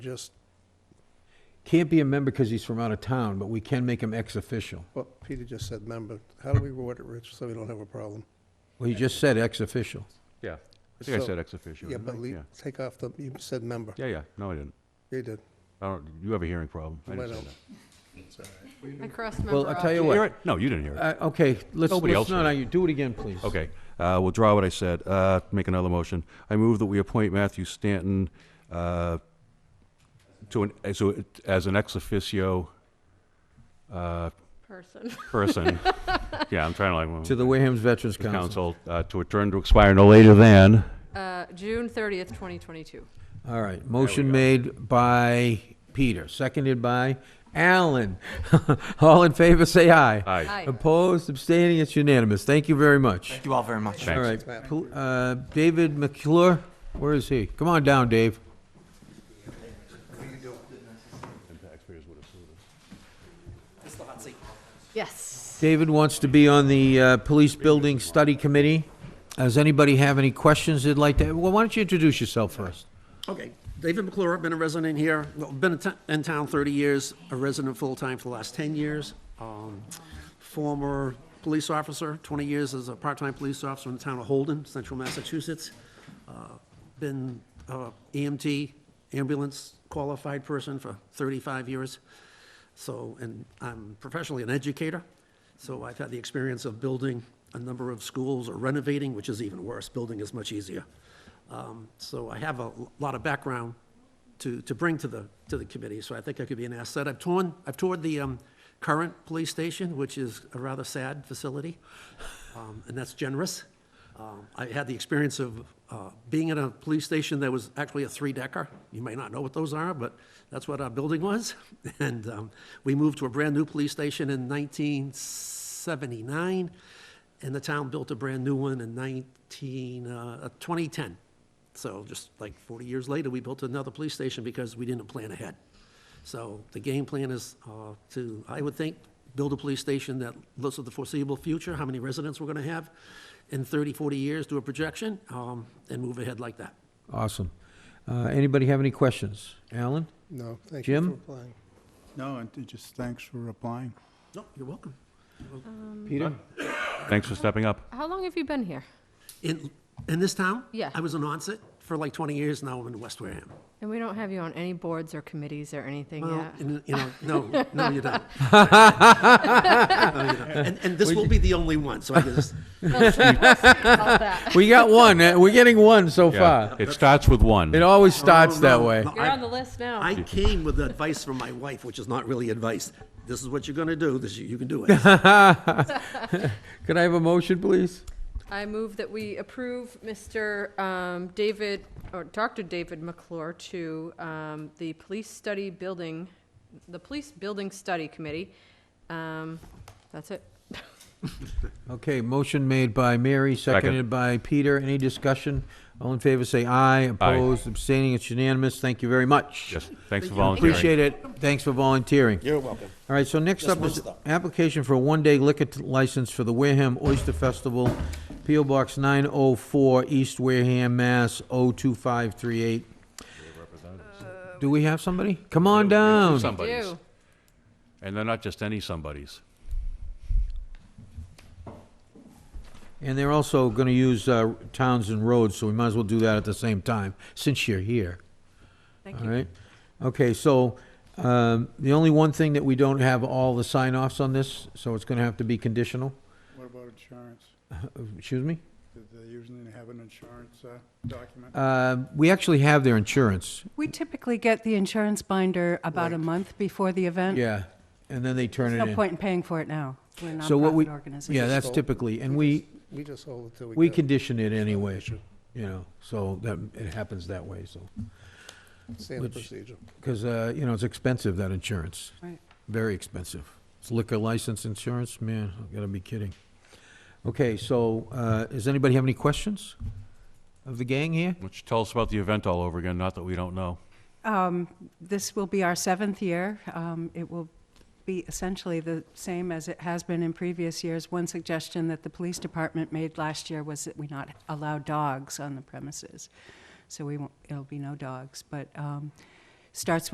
just, Can't be a member because he's from out of town, but we can make him ex-official. well, Peter just said member. How do we word it, Rich, so we don't have a problem? Well, he just said ex-official. Yeah, I think I So- said ex officio. Yeah, didn't I? but leave, Yeah. take off the, you said member. Yeah, yeah, no, I didn't. You did. I don't, you have a hearing problem. I You didn't might say not. that. I crossed member Well, I'll tell you You what. hear it? No, you didn't hear it. Uh, okay, let's, Nobody let's else not, did. argue. do it again, please. Okay, uh, we'll draw what I said, uh, make another motion. I move that we appoint Matthew Stanton, uh, to an, as, a- as an ex officio, uh, person. person. Yeah, I'm trying to like. To the Wareham's Veterans Council. Council, uh, to a term to expire no later than, Uh, June 30th, 2022. All right, motion made by Peter, seconded by Alan. All in favor, say aye. aye. Um, Aye. Opposed, abstaining, it's unanimous. Thank you very much. Thank you all very much. All right, pol- uh, David McClure, where is he? Come on down, Dave. Yes. David wants to be on the uh, Police Building Study Committee. Does anybody have any questions they'd like to, well, why don't you introduce yourself first? Okay, David McClure, I've been a resident here, well, been in to- in town 30 years, a resident full-time for the last 10 years. Um, Former police officer, 20 years as a part-time police officer in the town of Holden, central Massachusetts. Uh, Been uh, EMT, ambulance qualified person for 35 years. So, and I'm professionally an educator, so I've had the experience of building a number of schools or renovating, which is even worse, building is much easier. Um, So I have a l- lot of background to, to bring to the, to the committee, so I think I could be an asset. I've torn, I've toured the um, current police station, which is a rather sad facility, um, and that's generous. Um, I had the experience of uh, being in a police station that was actually a three-decker. You may not know what those are, but that's what our building was. And um, we moved to a brand-new police station in 1979, and the town built a brand-new one in 19, uh, 2010. So just like 40 years later, we built another police station because we didn't plan ahead. So the game plan is uh, to, I would think, build a police station that looks at the foreseeable future, how many residents we're going to have in 30, 40 years, do a projection, um, and move ahead like that. Awesome. Uh, Anybody have any questions? Alan? No, thank you for Jim? replying. No, and t- just thanks for applying. No, you're welcome. Peter? Thanks for stepping up. How long have you been here? In, in this town? Yeah. I was in onset for like 20 years, now I'm in West Wareham. And we don't have you on any boards or committees or anything Well, yet. and, you know, no, no, you don't. No, you don't. And, and this will be the only one, so I guess. We got one, uh, we're getting one so Yeah, far. it starts with one. It always starts No, that no, way. no, You're I- on the list now. I came with advice from my wife, which is not really advice. This is what you're gonna do, this, you can do it. Could I have a motion, please? I move that we approve Mr. um, David, or Dr. David McClure to um, the Police Study Building, the Police Building Study Committee. Um, That's it. Okay, motion made by Mary, seconded by Peter. Any discussion? All in favor, say aye. Opposed, abstaining, it's unanimous. Thank you very much. Yes, thanks for volunteering. Appreciate it. Thanks for volunteering. You're welcome. All right, so next up is application for a one-day liquor t- license for the Wareham Oyster Festival, P.O. Box 904, East Wareham, Mass. 02538. Do we have somebody? Come on down. Somebody's. Do. And they're not just any somebodies. And they're also going to use uh, towns and roads, so we might as well do that at the same time, since you're here. Thank All right? Okay, so um, the only one thing that we don't have all the sign-offs on this, so it's going to have to be conditional. What about insurance? Excuse me? Do they usually have an insurance uh, document? Uh, We actually have their insurance. We typically get the insurance binder about a month before the event. Yeah, and then they turn it No in. point in paying for it now. We're a So what we, nonprofit yeah, organization. that's typically, and we, We just hold it till we. we get- condition it anyway, you know, so that, it happens that way, so. Standard which- procedure. Because, you know, it's expensive, that insurance, Right. very expensive. It's Liquor license insurance, man, I gotta be kidding. Okay, so, uh, does anybody have any questions of the gang here? Which tell us about the event all over again, not that we don't know. Um, This will be our seventh year. Um, It will be essentially the same as it has been in previous years. One suggestion that the police department made last year was that we not allow dogs on the premises. So we won't, it'll be no dogs, but um, starts with